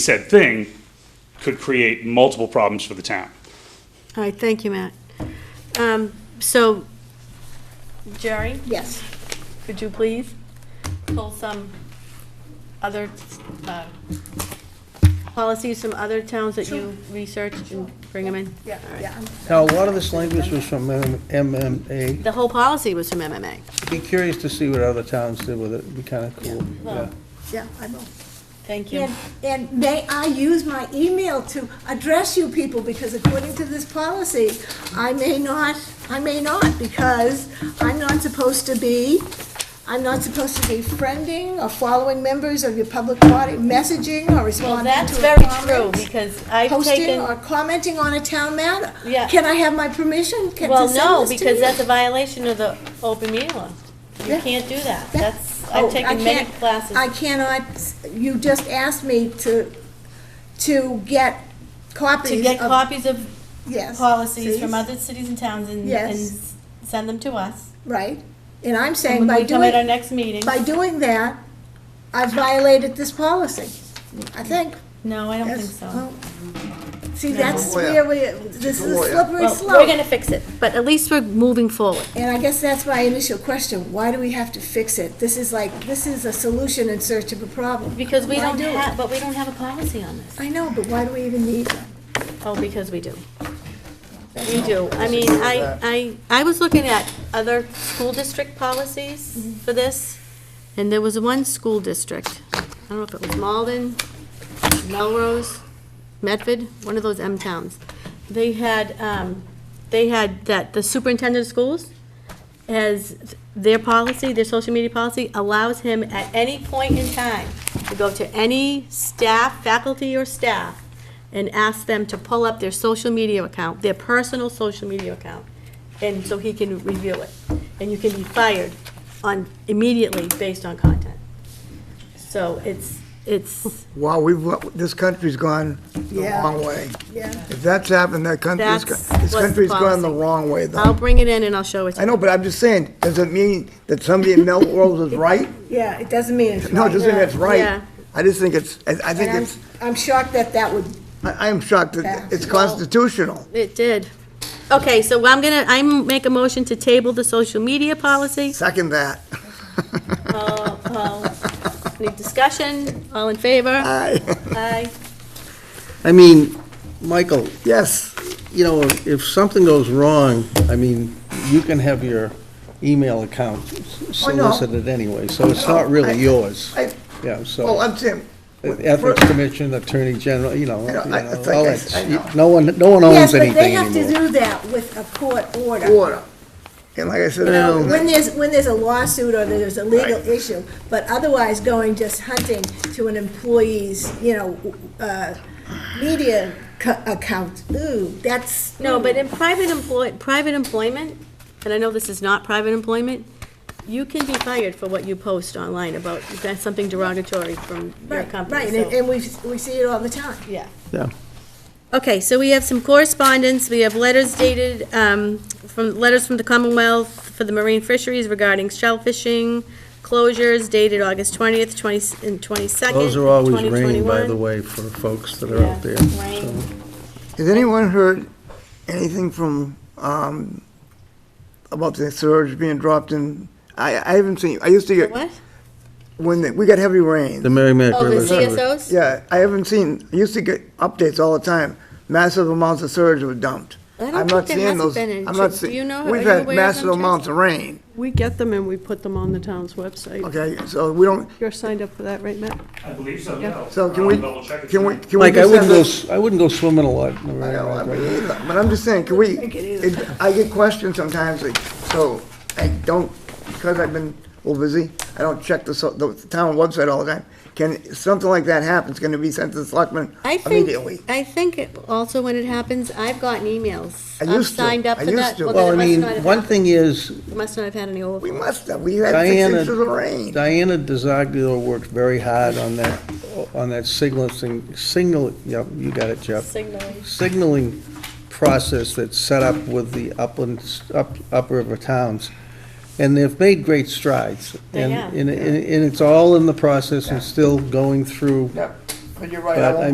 said thing could create multiple problems for the town. All right, thank you, Matt. Um, So, Jerry, Yes. could you please pull some other uh, policies from other towns that you researched and bring them in? Yeah, yeah. Now, a lot of this language was from M- MMA. The whole policy was from MMA. Be curious to see what other towns did with it, it'd be kind of cool, yeah. Yeah, I will. Thank you. And, and may I use my email to address you people, because according to this policy, I may not, I may not, because I'm not supposed to be, I'm not supposed to be friending or following members of your public body, messaging or Well, responding that's to very true, comments, because I've Posting or taken, commenting on a town matter. Yeah. Can I have my permission? Can- to well, send no, this to because you? that's a violation of the open meeting law. You Yeah. can't do that. Yeah. That's, Oh, I've I taken many can't- classes. I cannot, you just asked me to, to get copies of. To get copies of yes, policies from please. other cities and towns and, and Yes. s- send them to us. Right, and I'm saying And when by we come at our doing, next meeting, by doing that, I've violated this policy, I think. no, I don't think Yes. so. Oh, Well, See, that's Lawyer. where we, this is a lawyer. slippery Well, slope. fix it, but at least we're moving forward. And I guess that's my initial question, why do we have to fix it? This is like, this is a solution in search of a problem. Because we Why don't do it? have, but we don't have a policy on this. I know, but why do we even need one? Oh, because we do. We do. I mean, I, I, I was looking at other school district policies for this, and there was one school district, I don't know if it was Malden, Melrose, Medford, one of those M towns. They had, um, they had that the superintendent of schools has, their policy, their social media policy allows him at any point in time to go to any staff, faculty or staff, and ask them to pull up their social media account, their personal social media account, and so he can review it. And you can be fired on, immediately based on content. So it's, it's, Wow, we've, this country's gone the Yeah. wrong way. Yeah, If that's happened, that country's, That's go- this what's country's gone the policy. wrong way, I'll though. bring it in and I'll show it to I you. know, but I'm just saying, does it mean that somebody in Melrose is right? yeah, it doesn't mean it's No, right. it doesn't mean it's Yeah. right. I just think it's, I I think And I'm, it's, I'm shocked that that would, I I am shocked Yeah. that it's constitutional. It did. Okay, so I'm gonna, I make a motion to table the social media policy. Second that. All- all- Any discussion? All in favor? Aye. Aye. I mean, Michael, Yes, you know, if something goes wrong, I mean, you can have your email account Oh, no. solicited anyway, so it's not I- really yours. I- Yeah, well, so, Oh, e-, I'm saying, Ethics Commission, Attorney General, you know, you I know, know, I- I think all I- that, I know. no one, no one yes, owns but they anything have to anymore. do that with a court order. order. And like I said, You know, when I there's, when there's a lawsuit or there's a legal Right. issue, but otherwise going just hunting to an employee's, you know, uh, media co- account, ooh, that's. No, but Hmm. in private employ, private employment, and I know this is not private employment, you can be fired for what you post online about, if that's something derogatory from your Right, company, right, and, so- and we, we see it all the time. Yeah. Yeah. Okay, so we have some correspondence, we have letters dated, um, from, letters from the Commonwealth for the Marine Fisheries regarding shellfishing, closures dated August twentieth, twenty, and twenty-second, Those are always rain, by the 2021. way, for folks that are out Yeah, there. rain. so. Has anyone heard anything from, um, about the surge being dropped in? I, I haven't seen, I used to get. What? When the- we got heavy rain. The Merrimack Oh, River. the CSOs? Yeah, I haven't seen, I used to get updates all the time. Massive amounts of surge were dumped. I don't I'm think not there seeing hasn't those- been any. I'm not Do see- you know- are We've you had aware of massive them, Chris? amounts of rain, We get them and we put them on the town's website. okay? So we don't, You're signed up for that, right, Matt? I believe so, yeah. so can we, Double check it. can we, can we Like, I just have wouldn't go, this? s- I wouldn't go swimming a lot in the I don't, I Merrimack River. mean, either, but I'm just saying, can we, it- I get questions sometimes, like, so I don't, because I've been a little busy, I don't check the, so- the town website all the time. Can, something like that happens, can it be sent to the selectmen I think, immediately? I think it- also when it happens, I've gotten emails. I I've used to. signed up I for used that. to. Well, then Well, I it must mean, not have one hap- thing is, it Must not have had any We overflow. must have, we had six Diana- inches of rain. Diana DeZaglio worked very hard on that, on that signaling, signal, yep, you got it, Jeff. Signaling. Signaling process that's set up with the uplands, up, upriver towns. And they've made great strides. They And- have. And, and and it's all in the process and still going through Yeah, but you're right, But, I I won't